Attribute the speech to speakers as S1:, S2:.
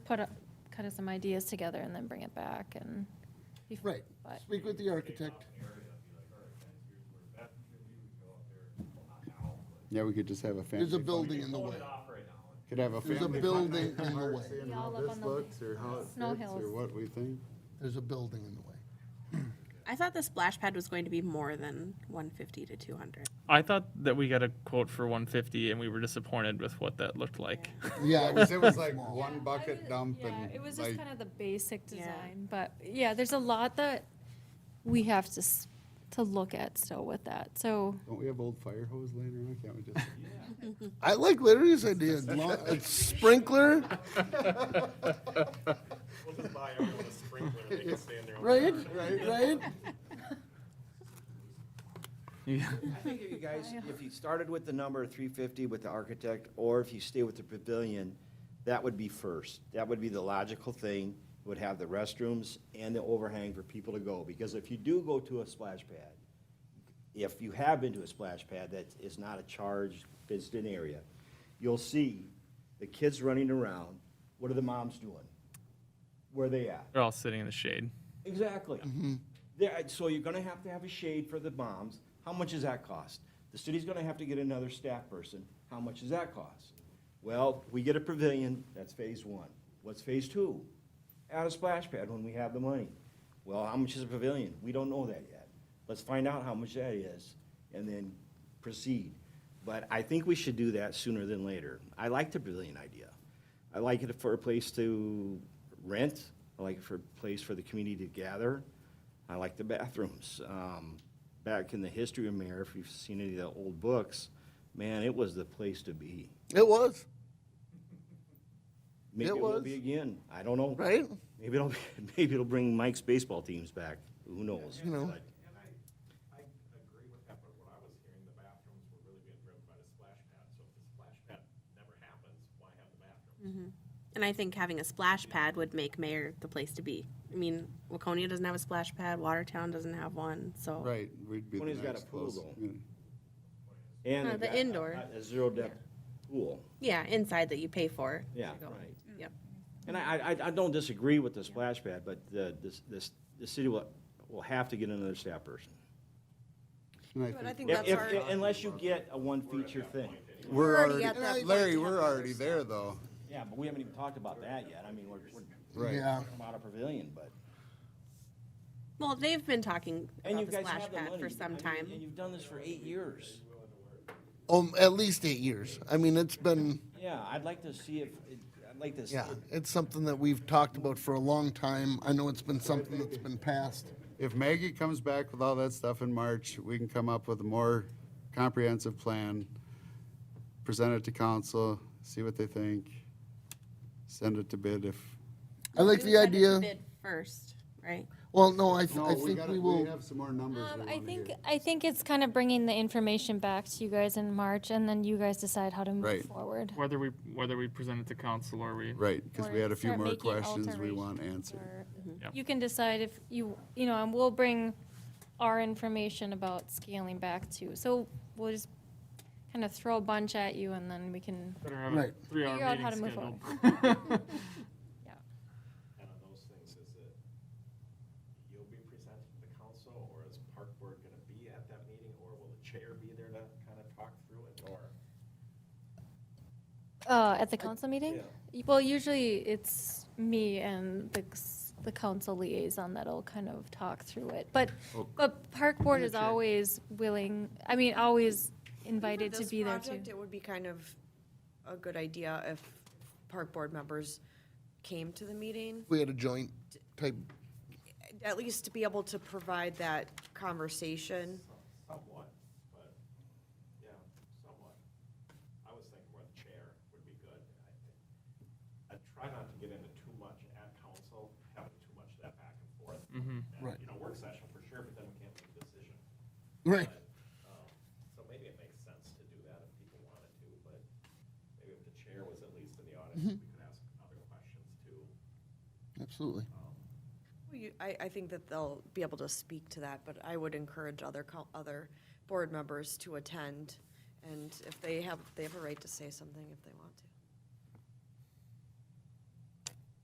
S1: put, a- kind of some ideas together and then bring it back and. bef-
S2: Right,
S1: But,
S2: speak with the architect.
S3: Yeah, we could just have a family.
S2: There's a building in the way.
S3: Could have a family.
S2: There's a building in the way.
S3: Seeing
S1: Yeah,
S3: how
S1: all up
S3: this
S1: on the
S3: looks or how it
S1: Snow
S3: fits
S1: Hills.
S3: or what we think.
S2: There's a building in the way.
S4: I thought the splash pad was going to be more than 150 to 200.
S5: I thought that we got a quote for 150 and we were disappointed with what that looked like.
S2: Yeah, it was-
S3: It was like one bucket
S1: Yeah,
S3: dump
S1: Yeah,
S3: and
S1: it was just
S3: like,
S1: kind of the basic
S4: Yeah.
S1: design, but yeah, there's a lot that we have to, s- to look at still with that, so.
S3: don't we have old fire hose laying around? Can't we just?
S2: I like Larry's idea, lo- a sprinkler,
S6: We'll just buy everyone a sprinkler and they can stand there.
S2: right, right, right?
S7: I think if you guys, if you started with the number three fifty with the architect, or if you stay with the pavilion, that would be first. That would be the logical thing, would have the restrooms and the overhang for people to go. Because if you do go to a splash pad, if you have been to a splash pad that is not a charged visited area, you'll see the kids running around. What are the moms doing? Where are they at?
S5: They're all sitting in the shade.
S7: Exactly. There, so you're gonna have to have a shade for the moms. How much does that cost? The city's gonna have to get another staff person. How much does that cost? Well, we get a pavilion, that's phase one. What's phase two? Add a splash pad when we have the money. Well, how much is a pavilion? We don't know that yet. Let's find out how much that is and then proceed. But I think we should do that sooner than later. I like the pavilion idea. I like it for a place to rent. I like it for a place for the community to gather. I like the bathrooms. Um, back in the history of Mayor, if you've seen any of the old books, man, it was the place to be.
S2: It was,
S7: Maybe
S2: It
S7: it will
S2: was.
S7: be again. I don't know.
S2: right?
S7: Maybe it'll maybe it'll bring Mike's baseball teams back. Who knows?
S2: You know.
S7: But-
S6: And I, I agree with that, but what I was hearing, the bathrooms were really being driven by the splash pad, so if the splash pad never happens, why have the bathrooms?
S4: And I think having a splash pad would make Mayor the place to be. I mean, Waconia doesn't have a splash pad, Watertown doesn't have one, so.
S3: Right, we'd be the
S7: Tony's got
S3: next
S7: a pool,
S3: closest
S7: though.
S3: community.
S7: And
S4: Uh,
S7: it
S4: the
S7: got
S4: indoor.
S7: A, a zero depth pool.
S4: Yeah, inside that you pay for.
S7: Yeah,
S4: to go.
S7: right.
S4: Yep.
S7: And I, I, I don't disagree with the splash pad, but the, this, this, the city will, will have to get another staff person.
S3: And
S8: But I think
S7: If,
S8: that's
S7: if-
S8: our,
S7: unless you get a one feature thing.
S3: We're
S8: already at that
S3: already,
S8: point
S3: Larry,
S8: to have
S3: we're
S8: another
S3: already there though.
S7: Yeah, but we haven't even talked about that yet. I mean, we're, we're
S3: Right.
S2: Yeah,
S7: about a pavilion, but.
S4: Well, they've been talking
S7: And you
S4: about the
S7: guys
S4: splash
S7: have the money.
S4: pad for
S7: I
S4: some
S7: mean,
S4: time.
S7: And you've done this for eight years.
S2: um, at least eight years. I mean, it's been,
S7: Yeah, I'd like to see if, I'd like to see.
S2: yeah, it's something that we've talked about for a long time. I know it's been something that's been passed.
S3: If Maggie comes back with all that stuff in March, we can come up with a more comprehensive plan, present it to council, see what they think, send it to bid if.
S2: I like the idea,
S4: Bid first, right?
S2: well, no, I, th-
S3: No,
S2: I think
S3: gotta-
S2: we will.
S3: have some more numbers we
S1: Um, I
S3: wanna
S1: think,
S3: hear.
S1: I think it's kind of bringing the information back to you guys in March, and then you guys decide how to move
S3: Right.
S1: forward.
S5: Whether we whether we present it to council or we
S3: Right, because we
S1: Or
S3: had a few
S1: start
S3: more
S1: making
S3: questions we
S1: alterations
S3: want answered.
S1: or-
S5: Yeah.
S1: You can decide if you, you know, and we'll bring our information about scaling back too. So we'll just kind of throw a bunch at you and then we can,
S5: better have
S2: Right.
S5: a three hour
S1: Figure out how
S5: meeting
S1: to move
S5: scheduled.
S6: And on those things, is it, you'll be presenting to the council, or is park board gonna be at that meeting, or will the chair be there to kind of talk through it, or?
S1: uh, at the council meeting?
S6: Yeah.
S1: Y- Well, usually it's me and the, c- the council liaison that'll kind of talk through it. But,
S5: Oh.
S1: but park board is always willing, I mean, always invited
S8: For
S1: to
S8: this
S1: be there too.
S8: project, It would be kind of a good idea if park board members came to the meeting,
S2: we had a joint type,
S8: at least to be able to provide that conversation.
S6: Somewhat, but, yeah, somewhat. I was thinking where the chair would be good. I- I try not to get into too much at council, having too much of that back and forth. And,
S2: Right.
S6: You know, work session for sure, but then we can't make a decision.
S2: right,
S6: Um, So maybe it makes sense to do that if people wanted to, but maybe if the chair was at least in the audience, we could ask other questions too.
S2: absolutely.
S8: Well, you- I, I think that they'll be able to speak to that, but I would encourage other, co- other board members to attend. And if they have, they have a right to say something if they want to.